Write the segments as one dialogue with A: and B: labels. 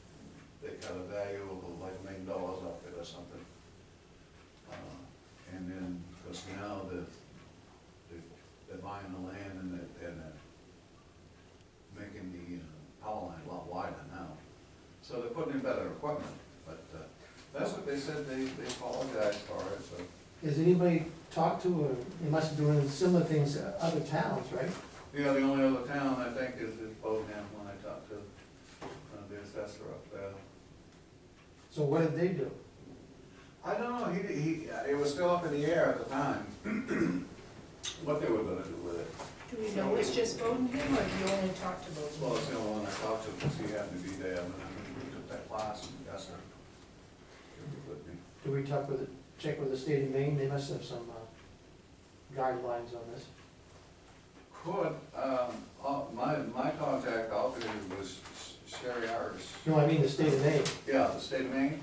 A: Uh, uh, So they're putting in better equipment, but uh, that's what they said, they, they apologized for it, so.
B: Has anybody talked to, or they must have doing similar things at other towns, right?
A: You know, the only other town I think is, is Bowden when I talked to uh, the assessor up there.
B: So what did they do?
A: I don't know, he, he, it was still up in the air at the time, what they were gonna do with it.
C: Do we know it's just Bowden him, or do you only talk to
A: Well, it's
C: Bowden?
A: the only one I talked to, because he happened to be there, and I took that class, and yes, sir.
B: Do we talk with, check with the state of Maine, they must have some uh, guidelines on this.
A: Could, um, uh, my, my contact outfit was Sherry Harris,
B: No, I mean the state of Maine,
A: yeah, the state of Maine.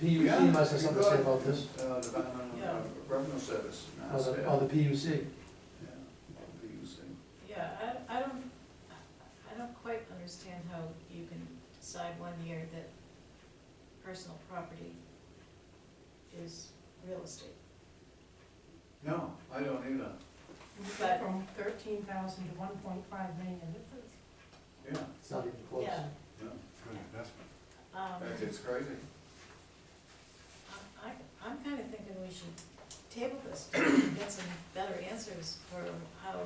B: the
A: Yeah,
B: PUC must have something to
A: you
B: say
A: could.
B: about this,
A: Uh, Department
C: Yeah.
A: of Revenue Service,
B: or
A: not state.
B: the, or the PUC.
A: Yeah,
B: Oh.
A: the using.
C: Yeah, I, I don't, I don't quite understand how you can decide one year that personal property is real estate.
A: No, I don't either,
C: But-
D: From thirteen thousand to one point five million, this is,
A: yeah,
B: It's not even close.
C: Yeah.
A: no.
C: Um,
A: That's, it's crazy.
C: I, I'm kinda thinking we should table this, to get some better answers for how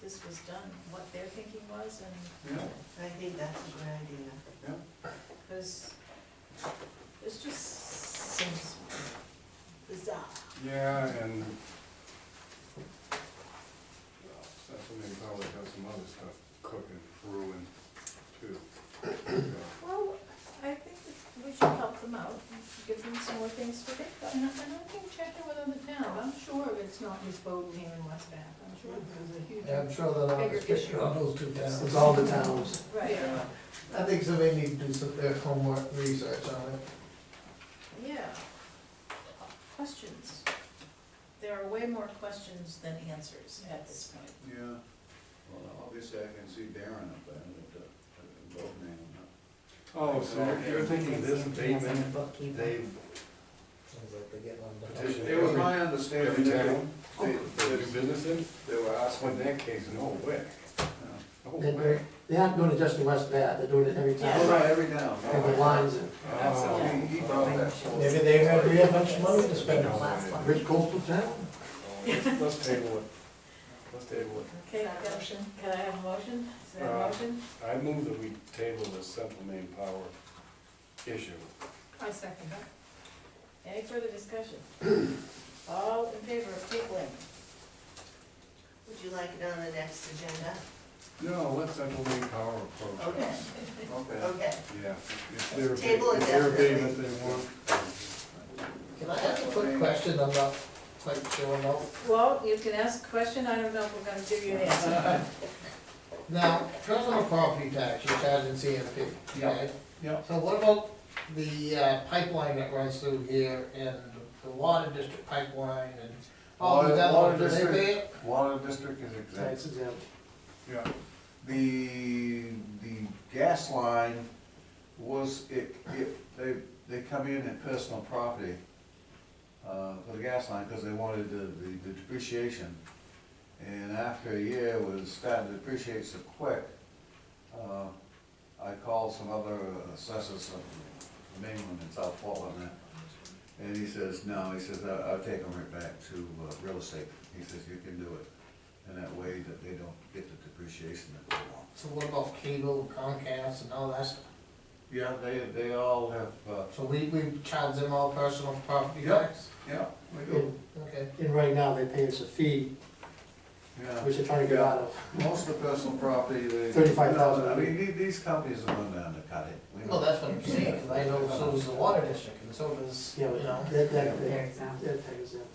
C: this was done, what their thinking was, and,
A: Yeah,
E: I think that's a great idea.
A: yeah.
C: cause this just seems bizarre.
F: Yeah, and well, Stephanie probably has some other stuff cooking, brewing too. So,
C: Well, I think that we should help them out, and give them some more things to think about.
D: and I, and I can check it with other towns, I'm sure it's not just Bowden here in West Bath, I'm sure there's a huge.
G: Yeah, I'm sure that I'll
D: Bigger
G: just pick
D: issue.
G: on those two
B: It's
G: towns.
B: all the towns.
C: Right,
D: Yeah.
G: I think somebody need to do some, their homework research on it.
C: yeah. Questions. There are way more questions than answers at this point.
A: Yeah, well, obviously I can see Darren up there, but, uh, both name,
F: Oh, so you're thinking this abatement, they've
G: Sounds like they're getting on. the-
F: Petition.
A: It was my understanding
F: every
A: that
F: town,
A: they,
F: they do
A: they-
F: business in,
A: they were
F: that's what
A: asking,
F: that case, no way.
A: yeah.
F: No
B: They-
F: way.
B: They're, they aren't doing it just in West Bath, they're doing it every
A: Well,
B: town,
A: right, every town.
B: and the lines, and
F: Oh,
A: He, he brought that.
G: Maybe they have, we have much money to spend on that.
E: Last one.
B: rich coastal town.
F: oh, Let's let's table it, let's table it.
C: Okay, I've got- can I have a motion? Is there a
F: Uh,
C: motion?
F: I move that we table this central main power issue.
D: I second that.
C: Any further discussion? All in favor of tabling?
E: Would you like it on the next agenda?
F: No, let central main power approach. it.
E: Okay,
A: Okay.
E: okay.
F: Yeah, if they're, if
E: Table it
F: they're
E: definitely.
F: abatement they want,
G: Can I ask a quick question? I'm not quite sure about.
C: Well, you can ask a question, I don't know if we're gonna give you an answer.
G: Now, personal property tax, you're charging CMP, okay?
A: Yep.
G: So what about the uh, pipeline that runs through here and the water district pipeline and all
A: Water-
G: of that,
A: water
G: do they
A: district.
G: pay it?
A: Water district is exempt.
B: That's exempt.
A: Yeah, the, the gas line was, it, it, they, they come in at personal property, uh, for the gas line, because they wanted the, the- the depreciation. And after a year, it was starting to depreciate so quick, uh, I called some other assessors of Mainland and South Portland, and and he says, no, he says, I- I'll take them right back to uh, real estate. He says, you can do it. And that way that they don't get the depreciation that they want.
G: So what about cable, Comcast and all that stuff?
A: Yeah, they, they all have, uh,
G: So we, we charge them all personal property
A: Yep.
G: tax?
A: yeah, we do,
B: And,
G: Okay.
B: and right now, they pay us a fee,
A: yeah.
B: which they're trying to get out of.
A: Most of the personal property, they.
B: $35,000.
A: I mean, the- these companies are going down to cut it. We
G: Well,
A: know.
G: that's what I'm saying, 'cause I know so does the water district and so does, you
B: Yeah, but
G: know.
B: that, that,
E: They're
B: that,
E: exempt.
B: that tag is exempt.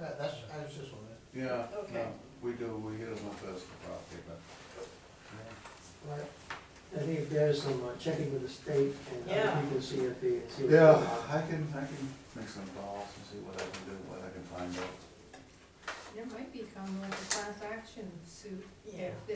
G: That- That's, I was just wondering.
A: Yeah, no,
C: Okay.
A: we do, we hit them on personal property, but.
B: Right. I think if there's some uh, checking with the state and
C: Yeah.
B: other people, see if they, see what's going
A: Yeah,
B: on.
A: I can, I can make some calls and see what I can do, what I can find out.
D: There might become like a class action suit
C: Yeah.
D: if the